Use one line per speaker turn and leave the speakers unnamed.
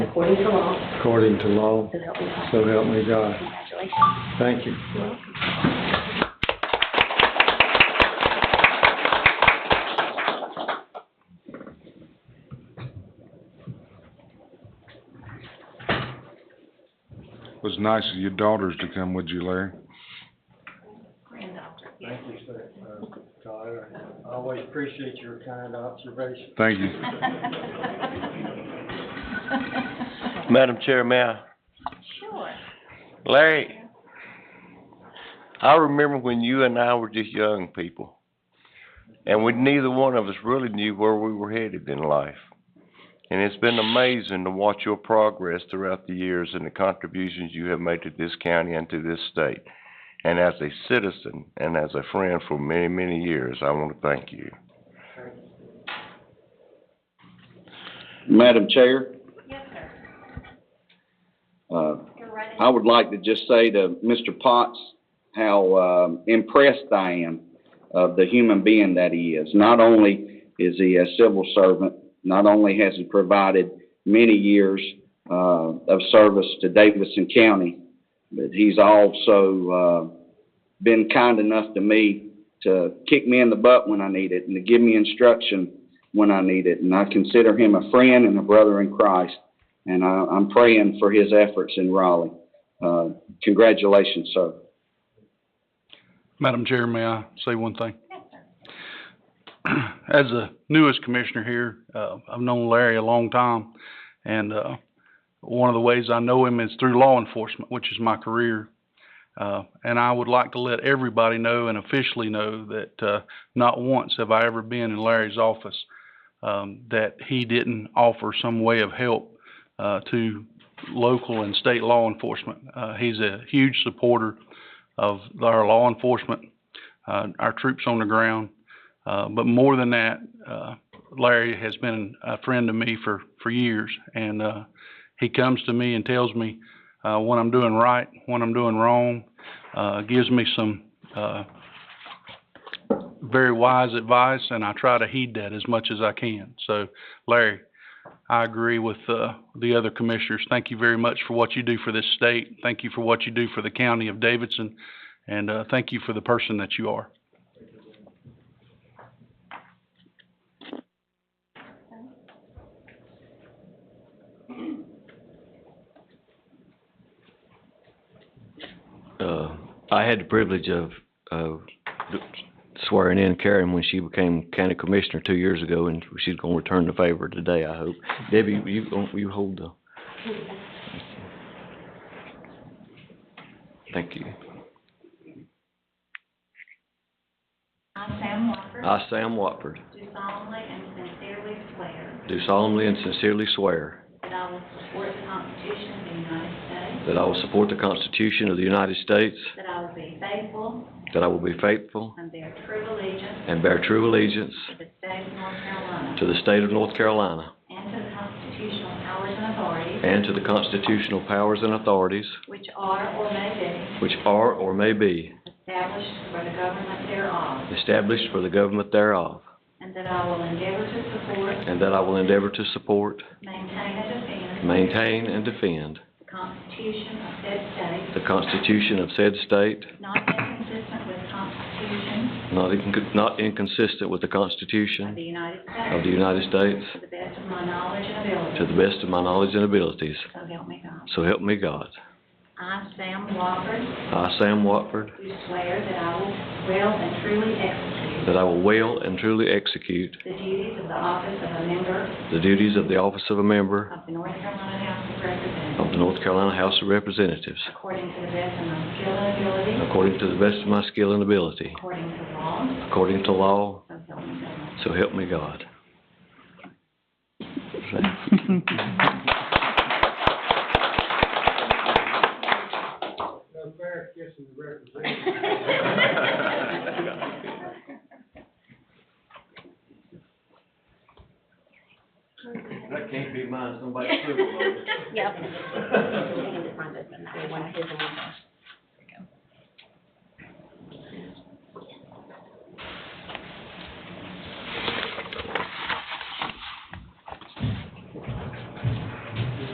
according to law,
according to law.
so help me God.
So help me God.
Congratulations.
Thank you.
You're welcome.
It was nice of your daughters to come with you, Larry.
Granddaughter.
Thank you, sir, uh, Tyler. I always appreciate your kind observation.
Thank you.
Madam Chair, may I?
Sure.
Larry, I remember when you and I were just young people, and we, neither one of us really knew where we were headed in life. And it's been amazing to watch your progress throughout the years and the contributions you have made to this county and to this state. And as a citizen and as a friend for many, many years, I want to thank you.
Madam Chair,
Yes, sir.
uh,
You're right.
I would like to just say to Mr. Potts how um, impressed I am of the human being that he is. Not only is he a civil servant, not only has he provided many years uh, of service to Davidson County, but he's also uh, been kind enough to me to kick me in the butt when I need it and to give me instruction when I need it. And I consider him a friend and a brother in Christ and I, I'm praying for his efforts in Raleigh. Uh, congratulations, sir.
Madam Chair, may I say one thing?
Yes, sir.
As the newest commissioner here, uh, I've known Larry a long time, and, uh, one of the ways I know him is through law enforcement, which is my career. Uh, and I would like to let everybody know and officially know that, uh, not once have I ever been in Larry's office, um, that he didn't offer some way of help, uh, to local and state law enforcement. Uh, he's a huge supporter of our law enforcement, uh, our troops on the ground. Uh, but more than that, uh, Larry has been a friend to me for, for years. And, uh, he comes to me and tells me, uh, when I'm doing right, when I'm doing wrong, uh, gives me some, uh, very wise advice and I try to heed that as much as I can. So Larry, I agree with, uh, the other commissioners. Thank you very much for what you do for this state. Thank you for what you do for the county of Davidson. And, uh, thank you for the person that you are.
uh, I had the privilege of, of swearing in Karen when she became county commissioner two years ago, and she's gonna return the favor today, I hope. Debbie, you, you hold the. Thank you.
I, Sam Walker,
I, Sam Watford,
do solemnly and sincerely swear
do solemnly and sincerely swear
that I will support the Constitution of the United States,
that I will support the Constitution of the United States,
that I will be faithful
that I will be faithful
and bear true allegiance
and bear true allegiance
to the state of North Carolina
to the state of North Carolina
and
and to
to the constitutional powers and authorities
the constitutional powers and authorities
which are or may
which are or may be
be established for the government thereof,
established for the government thereof,
and that I will endeavor to support,
and that I will endeavor to support,
maintain, and defend
maintain, and defend
the Constitution of said state,
the Constitution of said state,
not inconsistent with the Constitution
not incon- not inconsistent with the
of the
Constitution
United
of
States,
the United States,
to the best of my knowledge and ability.
to the best of my knowledge and abilities,
So help me God.
so help me God.
I, Sam Walker,
I, Sam Watford,
do swear that I will well and truly execute
that I will well and truly execute
the duties of the office of a member
the duties of the office of a member
of the North Carolina House of
of
Representatives
the North Carolina House of Representatives,
according to the best of my skill and ability,
according to the best of my skill and ability,
according to law,
according to law,
so help me God.
so help me God.
No fair kissing the representative.
That can't be mine, somebody
Yep.